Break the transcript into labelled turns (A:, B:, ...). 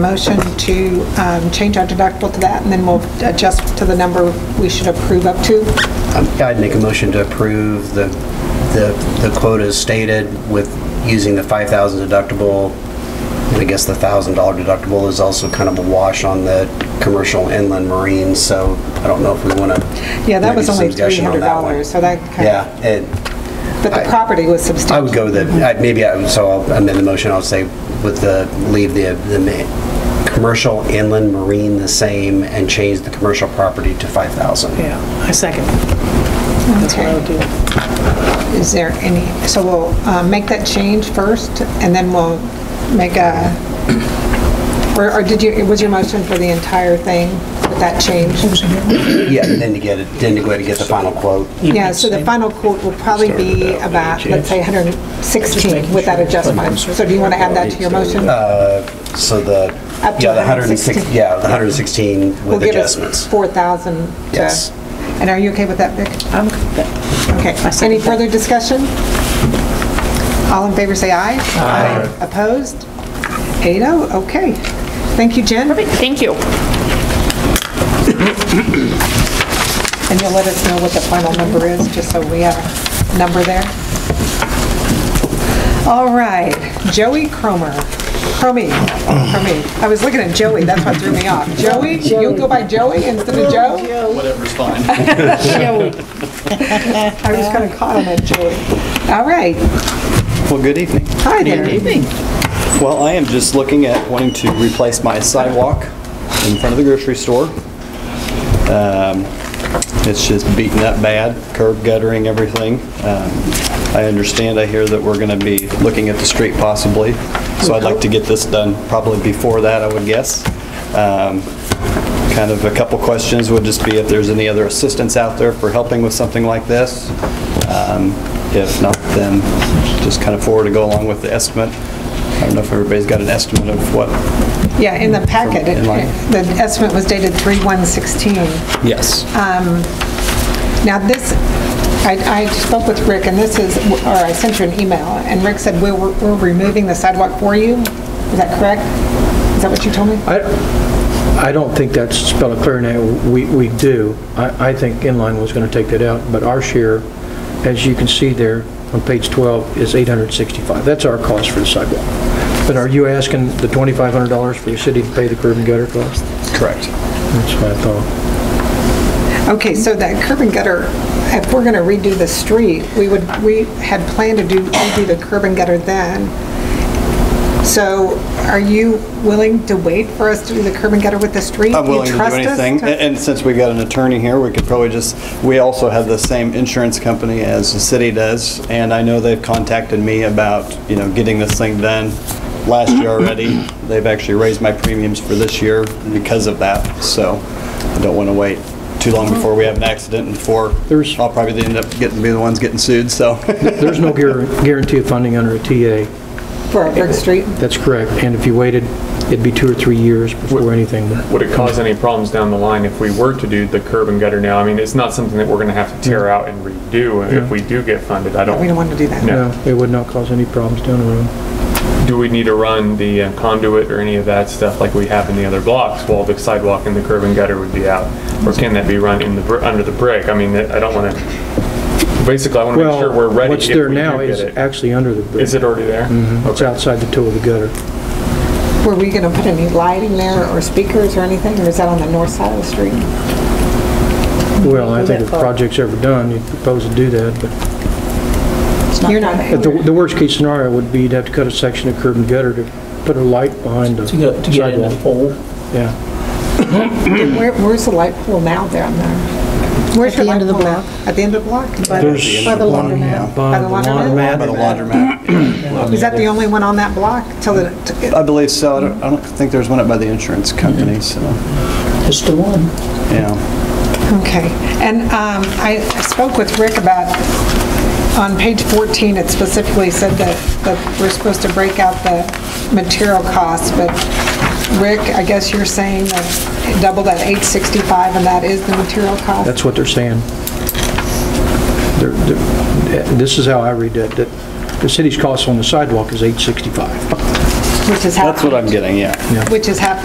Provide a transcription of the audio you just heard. A: Motion to um, change our deductible to that, and then we'll adjust to the number we should approve up to.
B: Um, yeah, I'd make a motion to approve the, the, the quote as stated with using the 5,000 deductible. And I guess the $1,000 deductible is also kind of a wash on the commercial inland marine, so I don't know if we want to.
A: Yeah, that was only $300, so that kind of...
B: Yeah, it,
A: But the
B: I-
A: property was
B: I would
A: substantial.
B: go with it,
A: Mm-hmm.
B: I- maybe, I- so I'll amend the motion, I'll say with the, leave the, the ma- commercial inland marine the same and change the commercial property to 5,000.
C: Yeah, I second. That's what I would do.
A: Is there any, so we'll uh, make that change first, and then we'll make a, or or did you, was your motion for the entire thing with that change?
B: Yeah, and then to get it, then to go ahead and get the final quote.
A: Yeah, so the final quote will probably be about, let's say, 116 with that adjustment. So do you want to add that to your motion?
B: So the,
A: Up to
B: yeah, the 116,
A: 116.
B: yeah, the 116
A: Will
B: with
A: give us
B: adjustments.
A: 4,000 to...
B: Yes.
A: And are you okay with that, Vic?
C: I'm good with that.
A: Okay.
C: second
A: Any
C: that.
A: further discussion? All in favor, say aye. Aye. Opposed? 8-0, okay. Thank you, Jen.
D: Perfect, thank you.
A: And you'll let us know what the final number is, just so we have a number there? All right, Joey Cromer, Cromie, Cromie. I was looking at Joey, that's what threw me off. Joey, you go by Joey instead of Joe?
E: Whatever's fine.
A: I was kind of caught on that Joey. All right,
E: Well, good evening.
A: hi there.
E: Well, I am just looking at wanting to replace my sidewalk in front of the grocery store. Um, It's just beaten up bad, curb guttering, everything. Um, I understand, I hear that we're going to be looking at the street possibly, so I'd like to get this done probably before that, I would guess. Um, Kind of a couple questions would just be if there's any other assistance out there for helping with something like this. Um, If not, then just kind of forward to go along with the estimate. I don't know if everybody's got an estimate of what...
A: Yeah, in the packet, it-
E: In line.
A: the estimate was dated 3/116.
E: Yes.
A: Um, Now, this, I I spoke with Rick, and this is, or I sent you an email, and Rick said, "We're we're removing the sidewalk for you." Is that correct? Is that what you told me?
F: I I don't think that's spelled clear now. We we do. I I think Inline was going to take that out, but our share, as you can see there on page 12, is 865. That's our cost for the sidewalk. But are you asking the $2,500 for the city to pay the curb and gutter cost?
E: Correct.
F: That's what I thought.
A: Okay, so that curb and gutter, if we're going to redo the street, we would, we had planned to do, redo the curb and gutter then. So are you willing to wait for us to do the curb and gutter with the street?
E: I'm
A: You
E: willing to do
A: trust us
E: anything. A- And since we got an attorney here, we could probably just, we also have the same insurance company as the city does, and I know they've contacted me about, you know, getting this thing done last year already. They've actually raised my premiums for this year because of that, so I don't want to wait too long before we have an accident and before
F: There's-
E: I'll probably end up getting, be the ones getting sued, so.
F: There's no guar- guarantee of funding under a TA.
A: For a brick street?
F: That's correct. And if you waited, it'd be two or three years before anything.
G: Would it cause any problems down the line if we were to do the curb and gutter now? I mean, it's not something that we're gonna have to
F: Mm-hmm.
G: tear out and redo if we do get funded. I don't.
A: We don't want to do that.
G: No.
F: No, it would not cause any problems down the road.
G: Do we need to run the uh, conduit or any of that stuff like we have in the other blocks while the sidewalk and the curb and gutter would be out? Or can that be run in the, br- under the brick? I mean, I don't wanna, basically, I wanna make sure we're
F: Well,
G: ready if
F: what's
G: we
F: there
G: do
F: now
G: get
F: is
G: it.
F: actually Mm-hmm. under the bridge.
G: Is it already there?
F: It's outside the toe of the gutter.
A: Were we going to put any lighting there or speakers or anything, or is that on the north side of the street?
F: Well, I think if the project's ever done, you'd propose to do that, but-
A: You're not,
F: but the- the worst-case scenario would be you'd have to cut a section of curb and gutter to put a light behind the
H: To get in the
F: sidewalk.
H: hole.
F: Yeah.
A: where- where's the light pole now down there? Where's
I: At
A: your
I: the end
A: light
I: of the
A: pole now? At the end of the block?
F: There's-
I: By the laundromat.
F: By
A: the
F: the
A: laundromat?
F: laundromat.
E: By the laundromat.
A: Is that the only one on that block till the,
E: I believe so. I don't, I don't think there's one up by the insurance company, so,
H: It's the one.
E: yeah.
A: okay. And um, I I spoke with Rick about, on page 14, it specifically said that, that we're supposed to break out the material costs, but Rick, I guess you're saying that double that 865 and that is the material cost?
F: That's what they're saying. They're- they're- This is how I read that, that the city's cost on the sidewalk is 865.
E: which is half.
A: That's what I'm getting, yeah.
E: Which is half